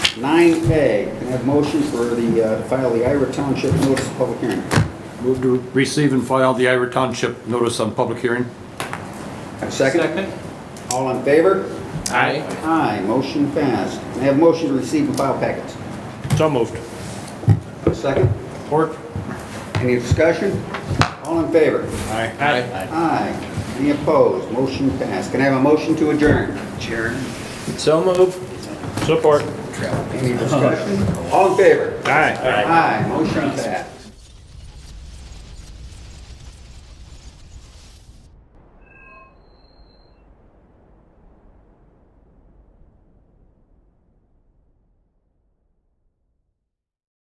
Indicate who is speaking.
Speaker 1: 9A, can I have motion for the, uh, to file the Ira Township notice of public hearing?
Speaker 2: Move to receive and file the Ira Township notice on public hearing.
Speaker 1: Have a Second? All in favor?
Speaker 3: Aye.
Speaker 1: Aye, motion passed. Can I have motion to receive and file packets?
Speaker 3: So moved.
Speaker 1: Have a Second?
Speaker 3: Support?
Speaker 1: Any discussion? All in favor?
Speaker 3: Aye. Aye.
Speaker 1: Aye. Any opposed? Motion passed. Can I have a motion to adjourn? Chair.
Speaker 3: So moved. Support?
Speaker 1: Any discussion? All in favor?
Speaker 3: Aye.
Speaker 1: Aye, motion passed.